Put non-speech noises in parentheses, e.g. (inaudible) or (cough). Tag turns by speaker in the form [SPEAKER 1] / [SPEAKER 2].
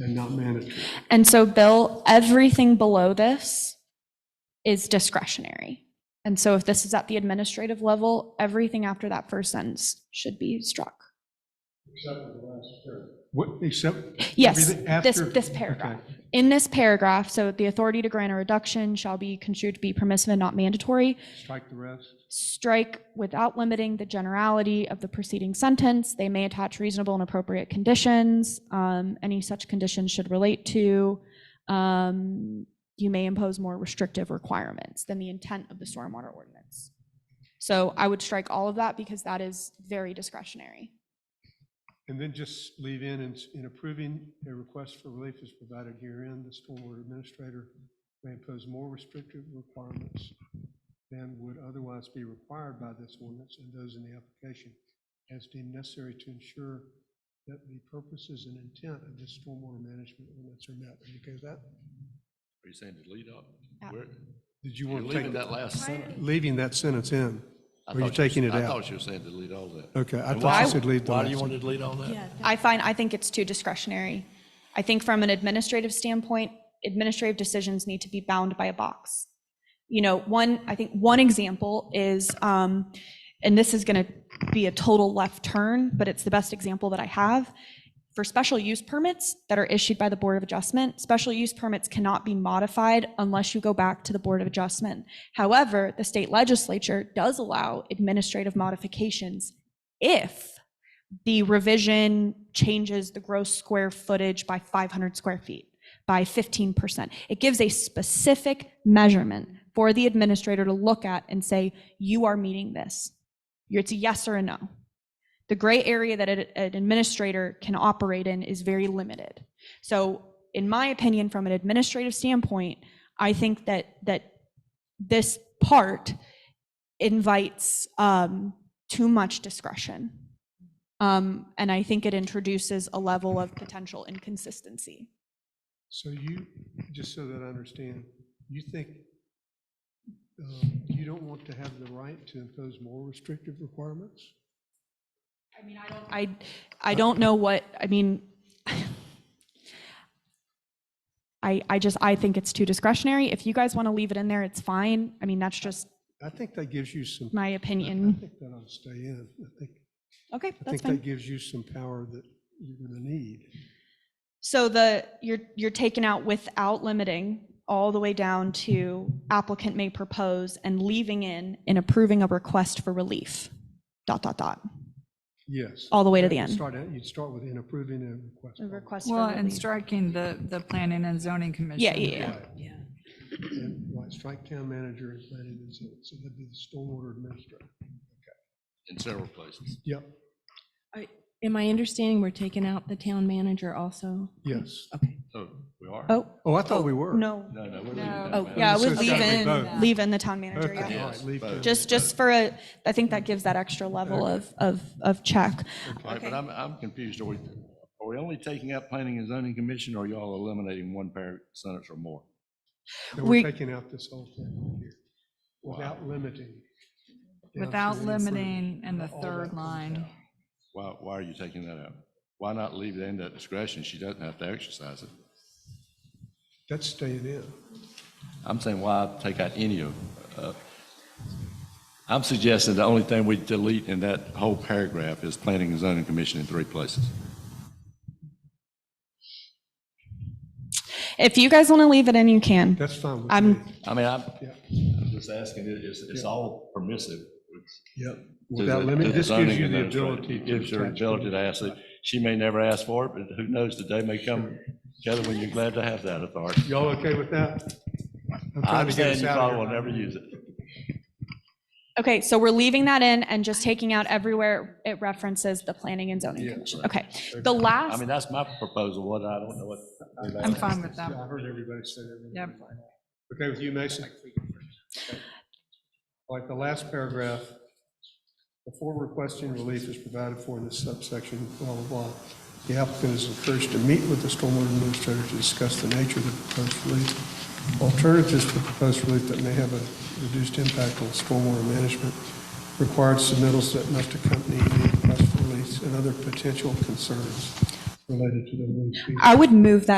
[SPEAKER 1] and not mandatory.
[SPEAKER 2] And so, Bill, everything below this is discretionary. And so if this is at the administrative level, everything after that first sentence should be struck.
[SPEAKER 1] Except for the last term. What, except?
[SPEAKER 2] Yes,
[SPEAKER 1] everything
[SPEAKER 2] this,
[SPEAKER 1] after-
[SPEAKER 2] this paragraph.
[SPEAKER 1] okay.
[SPEAKER 2] In this paragraph, so the authority to grant a reduction shall be construed to be permissive and not mandatory.
[SPEAKER 1] Strike the rest.
[SPEAKER 2] Strike without limiting the generality of the preceding sentence. They may attach reasonable and appropriate conditions. Um, Any such conditions should relate to. um, You may impose more restrictive requirements than the intent of the stormwater ordinance. So I would strike all of that because that is very discretionary.
[SPEAKER 1] And then just leave in, "In- in approving a request for relief is provided herein, the stormwater administrator may impose more restrictive requirements than would otherwise be required by this ordinance and those in the application as deemed necessary to ensure that the purposes and intent of this stormwater management ordinance are met. Are you okay with that?
[SPEAKER 3] Are you saying delete up?
[SPEAKER 2] Yeah.
[SPEAKER 3] Where-
[SPEAKER 1] Did you
[SPEAKER 3] You're
[SPEAKER 1] want to take,
[SPEAKER 3] leaving that last sentence?
[SPEAKER 1] leaving that sentence in?
[SPEAKER 3] I
[SPEAKER 1] Or you
[SPEAKER 3] thought you
[SPEAKER 1] taking
[SPEAKER 3] was-
[SPEAKER 1] it
[SPEAKER 3] I
[SPEAKER 1] out?
[SPEAKER 3] thought you were saying delete all that.
[SPEAKER 1] Okay, I
[SPEAKER 3] And
[SPEAKER 1] thought you
[SPEAKER 3] why-
[SPEAKER 1] said leave the
[SPEAKER 3] Why do you
[SPEAKER 1] last
[SPEAKER 3] want to delete all that?
[SPEAKER 2] I find, I think it's too discretionary. I think from an administrative standpoint, administrative decisions need to be bound by a box. You know, one, I think one example is, um, and this is going to be a total left turn, but it's the best example that I have. For special use permits that are issued by the Board of Adjustment, special use permits cannot be modified unless you go back to the Board of Adjustment. However, the state legislature does allow administrative modifications if the revision changes the gross square footage by 500 square feet, by 15%. It gives a specific measurement for the administrator to look at and say, you are meeting this. You're- It's a yes or a no. The gray area that an an administrator can operate in is very limited. So in my opinion, from an administrative standpoint, I think that, that this part invites um, too much discretion. Um, and I think it introduces a level of potential inconsistency.
[SPEAKER 1] So you, just so that I understand, you think um, you don't want to have the right to impose more restrictive requirements?
[SPEAKER 2] I mean, I don't. I, I don't know what, I mean, (sighs) I, I just, I think it's too discretionary. If you guys want to leave it in there, it's fine. I mean, that's just
[SPEAKER 1] I think that gives you some,
[SPEAKER 2] my
[SPEAKER 1] I
[SPEAKER 2] opinion.
[SPEAKER 1] think that ought to stay in. I think,
[SPEAKER 2] Okay,
[SPEAKER 1] I
[SPEAKER 2] that's
[SPEAKER 1] think
[SPEAKER 2] fine.
[SPEAKER 1] that gives you some power that you're going to need.
[SPEAKER 2] So the, you're, you're taking out without limiting all the way down to applicant may propose and leaving in and approving a request for relief, dot, dot, dot,
[SPEAKER 1] Yes.
[SPEAKER 2] all the way to
[SPEAKER 1] That
[SPEAKER 2] the
[SPEAKER 1] would
[SPEAKER 2] end.
[SPEAKER 1] Start out, you'd start with in approving a request.
[SPEAKER 2] A request for
[SPEAKER 4] Well, and
[SPEAKER 2] relief.
[SPEAKER 4] striking the, the planning and zoning commission.
[SPEAKER 2] Yeah, yeah, yeah.
[SPEAKER 1] Right. And, Right, strike town manager and planning and zoning, so that'd be the stormwater administrator.
[SPEAKER 3] In several places.
[SPEAKER 1] Yep,
[SPEAKER 5] Am I understanding we're taking out the town manager also?
[SPEAKER 1] yes.
[SPEAKER 5] Okay.
[SPEAKER 3] Oh, we are?
[SPEAKER 2] Oh,
[SPEAKER 1] Oh, I thought we were.
[SPEAKER 2] no.
[SPEAKER 3] No, no, we're leaving
[SPEAKER 4] No.
[SPEAKER 3] that.
[SPEAKER 5] Oh,
[SPEAKER 3] out.
[SPEAKER 2] Yeah, I
[SPEAKER 1] So
[SPEAKER 2] would
[SPEAKER 1] it's
[SPEAKER 2] leave
[SPEAKER 1] gotta be
[SPEAKER 2] in,
[SPEAKER 1] both.
[SPEAKER 2] leave in the town manager,
[SPEAKER 1] Okay,
[SPEAKER 2] yeah.
[SPEAKER 1] all right, leave
[SPEAKER 3] Yes,
[SPEAKER 1] town
[SPEAKER 2] Just, just for a, I think that gives that extra level of, of, of check.
[SPEAKER 3] All right, but I'm, I'm confused. Are we, are we only taking out planning and zoning commission or y'all eliminating one par sentence or more?
[SPEAKER 1] And
[SPEAKER 2] We-
[SPEAKER 1] we're taking out this whole thing here, without limiting. down to
[SPEAKER 4] Without
[SPEAKER 1] the
[SPEAKER 4] limiting and the
[SPEAKER 1] All that
[SPEAKER 4] third
[SPEAKER 1] comes
[SPEAKER 4] line.
[SPEAKER 1] out.
[SPEAKER 3] Why, why are you taking that out? Why not leave it in that discretion? She doesn't have to exercise it.
[SPEAKER 1] That's staying in.
[SPEAKER 3] I'm saying why take out any of, uh, I'm suggesting the only thing we delete in that whole paragraph is planning and zoning commission in three places.
[SPEAKER 2] If you guys want to leave it in, you can.
[SPEAKER 1] That's fine with me.
[SPEAKER 2] I'm,
[SPEAKER 3] I mean, I'm,
[SPEAKER 1] Yeah.
[SPEAKER 3] I'm just asking, it- it's, it's all permissive. It's-
[SPEAKER 1] Yep.
[SPEAKER 3] to
[SPEAKER 1] Without
[SPEAKER 3] the-
[SPEAKER 1] limit,
[SPEAKER 3] to
[SPEAKER 1] this gives
[SPEAKER 3] zoning
[SPEAKER 1] you the
[SPEAKER 3] administrator.
[SPEAKER 1] ability.
[SPEAKER 3] It
[SPEAKER 1] to
[SPEAKER 3] Gives her
[SPEAKER 1] attach
[SPEAKER 3] ability to
[SPEAKER 1] whatever.
[SPEAKER 3] ask it. She may never ask for it, but who knows, the day may come, Heather, when you're glad to have that authority.
[SPEAKER 1] Y'all okay with that? I'm trying to
[SPEAKER 3] I'm
[SPEAKER 1] get
[SPEAKER 3] saying
[SPEAKER 1] us
[SPEAKER 3] you
[SPEAKER 1] out
[SPEAKER 3] probably
[SPEAKER 1] of
[SPEAKER 3] will
[SPEAKER 1] here.
[SPEAKER 3] never use it.
[SPEAKER 2] okay, so we're leaving that in and just taking out everywhere it references the planning and zoning
[SPEAKER 1] Yeah,
[SPEAKER 2] commission. Okay, the
[SPEAKER 3] I
[SPEAKER 2] last,
[SPEAKER 3] mean, that's my proposal, what, I don't know what.
[SPEAKER 4] I'm fine with
[SPEAKER 1] Yeah,
[SPEAKER 4] that.
[SPEAKER 1] I heard everybody say that.
[SPEAKER 4] Yep.
[SPEAKER 1] Okay with you, Mason? Okay. Like the last paragraph, before requesting relief is provided for in this subsection, blah, blah, blah, the applicant is encouraged to meet with the stormwater administrator to discuss the nature of the proposed relief, alternatives for proposed relief that may have a reduced impact on stormwater management, required submittals that must accompany any request for release, and other potential concerns related to the relief. being
[SPEAKER 2] I would move that